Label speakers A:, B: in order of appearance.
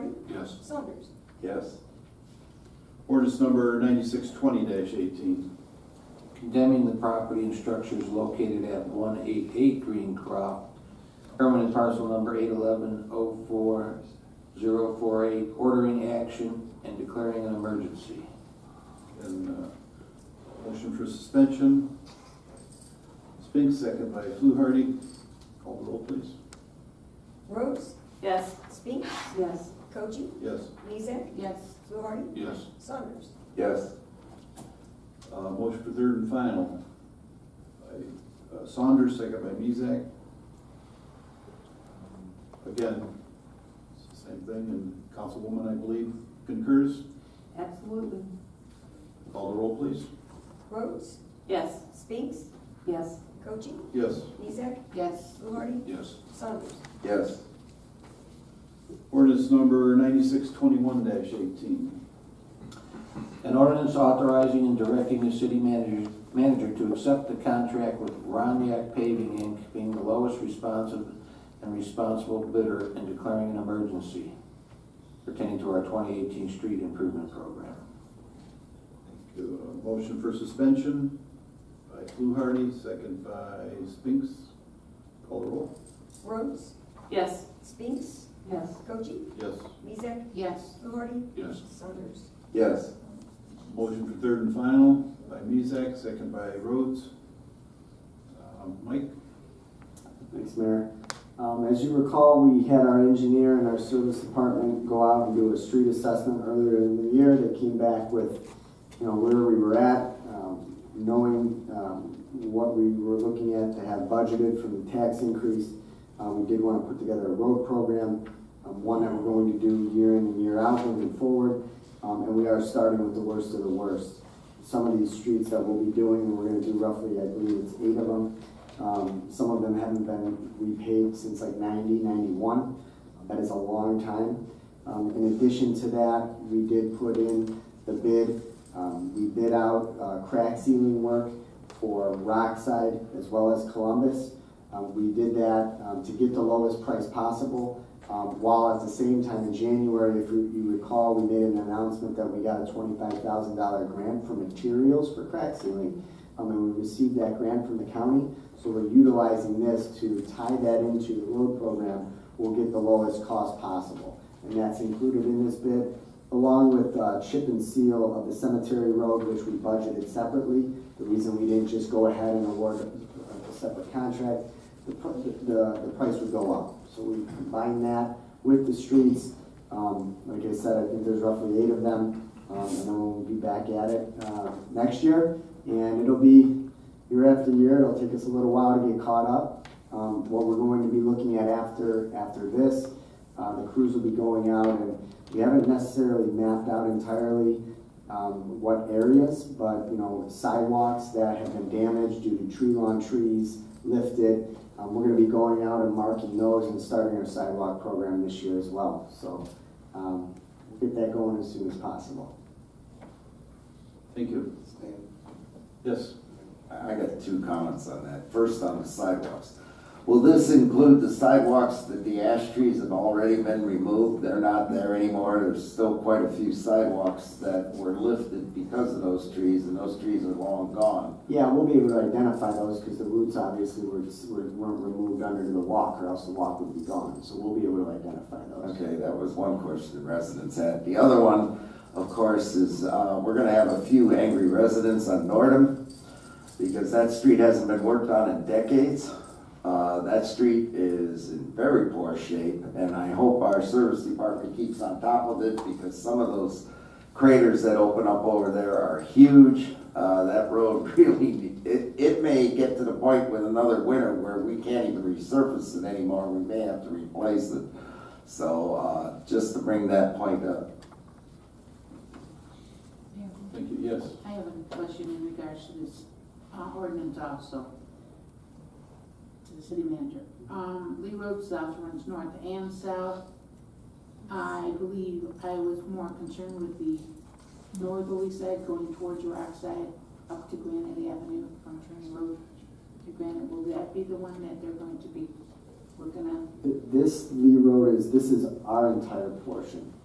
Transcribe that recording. A: Yes.
B: Saunders.
A: Yes. Ordinance number ninety-six twenty eighteen.
C: condemning the property and structures located at one eight eight Green Crop, permanent parcel number eight eleven oh four zero four eight, ordering action and declaring an emergency.
A: And, uh, motion for suspension. Spinks, second by Fluharty. Call the roll, please.
B: Rhodes,
D: Yes.
B: Spinks,
D: Yes.
B: Koji,
A: Yes.
B: Mizek,
D: Yes.
B: Fluharty,
A: Yes.
B: Saunders.
A: Yes. Uh, motion for third and final. By uh, Saunders, second by Mezak. Again, it's the same thing, and Councilwoman, I believe, concurs.
D: Absolutely.
A: Call the roll, please.
B: Rhodes,
D: Yes.
B: Spinks,
D: Yes.
B: Koji,
A: Yes.
B: Mizek,
D: Yes.
B: Fluharty,
A: Yes.
B: Saunders.
A: Yes. Ordinance number ninety-six twenty-one eighteen.
C: An ordinance authorizing and directing the city manager, manager to accept the contract with Roniak Paving Inc. being the lowest responsive and responsible bidder and declaring an emergency pertaining to our twenty eighteen street improvement program.
A: Motion for suspension by Fluharty, second by Spinks. Call the roll.
B: Rhodes,
D: Yes.
B: Spinks,
D: Yes.
B: Koji,
A: Yes.
B: Mizek,
D: Yes.
B: Fluharty,
A: Yes.
B: Saunders.
A: Yes. Motion for third and final by Mezak, second by Rhodes. Um, Mike?
E: Thanks, Mayor. Um, as you recall, we had our engineer and our service department go out and do a street assessment earlier in the year. They came back with, you know, where we were at, um, knowing, um, what we were looking at to have budgeted from the tax increase. Uh, we did want to put together a road program, um, one that we're going to do year in and year out moving forward. Um, and we are starting with the worst of the worst. Some of these streets that we'll be doing, we're gonna do roughly, I believe it's eight of them. Um, some of them haven't been repaid since like 90, 91. That is a long time. Um, in addition to that, we did put in the bid. Um, we bid out uh, crack sealing work for Rockside as well as Columbus. Um, we did that um, to get the lowest price possible. Um, while at the same time in January, if you you recall, we made an announcement that we got a $25,000 grant for materials for crack sealing. Um, and we received that grant from the county. So we're utilizing this to tie that into the road program, we'll get the lowest cost possible. And that's included in this bid, along with uh, chip and seal of the cemetery road, which we budgeted separately. The reason we didn't just go ahead and award a a separate contract, the, pr- the, the price would go up. So we combine that with the streets, um, like I said, I think there's roughly eight of them. Um, and then we'll be back at it, uh, next year, and it'll be, year after year. It'll take us a little while to get caught up. Um, what we're going to be looking at after after this, uh, the crews will be going out, and we haven't necessarily mapped out entirely um, what areas, but you know sidewalks that have been damaged due to tree lawn trees lifted. Um, we're going to be going out and marking those and starting our sidewalk program this year as well. So um, we'll get that going as soon as possible.
A: Thank you. Yes.
F: I got two comments on that. First, on the sidewalks. Will this include the sidewalks that the ash trees have already been removed? They're not there anymore. There's still quite a few sidewalks that were lifted because of those trees, and those trees are long gone.
E: Yeah, we'll be able to identify those because the roots obviously were, were- weren't removed under the walk or else the walk would be gone. So we'll be able to identify those.
F: Okay, that was one question the residents had. The other one, of course, is uh, we're gonna have a few angry residents on Nordum because that street hasn't been worked on in decades. Uh, That street is in very poor shape, and I hope our service department keeps on top of it because some of those craters that open up over there are huge. Uh, That road really, it, it may get to the point with another winter where we can't even resurface it anymore. We may have to replace it. So uh, just to bring that point up.
A: Thank you, yes.
G: I have a question in regards to this uh, ordinance also, to the city manager. Um, Lee Road South runs north and south. I believe I was more concerned with the northerly side going towards Rockside up to Granite Avenue from Turning Road to Granite. Will that be the one that they're going to be, we're gonna
E: Th- This Lee Road is, this is our entire portion.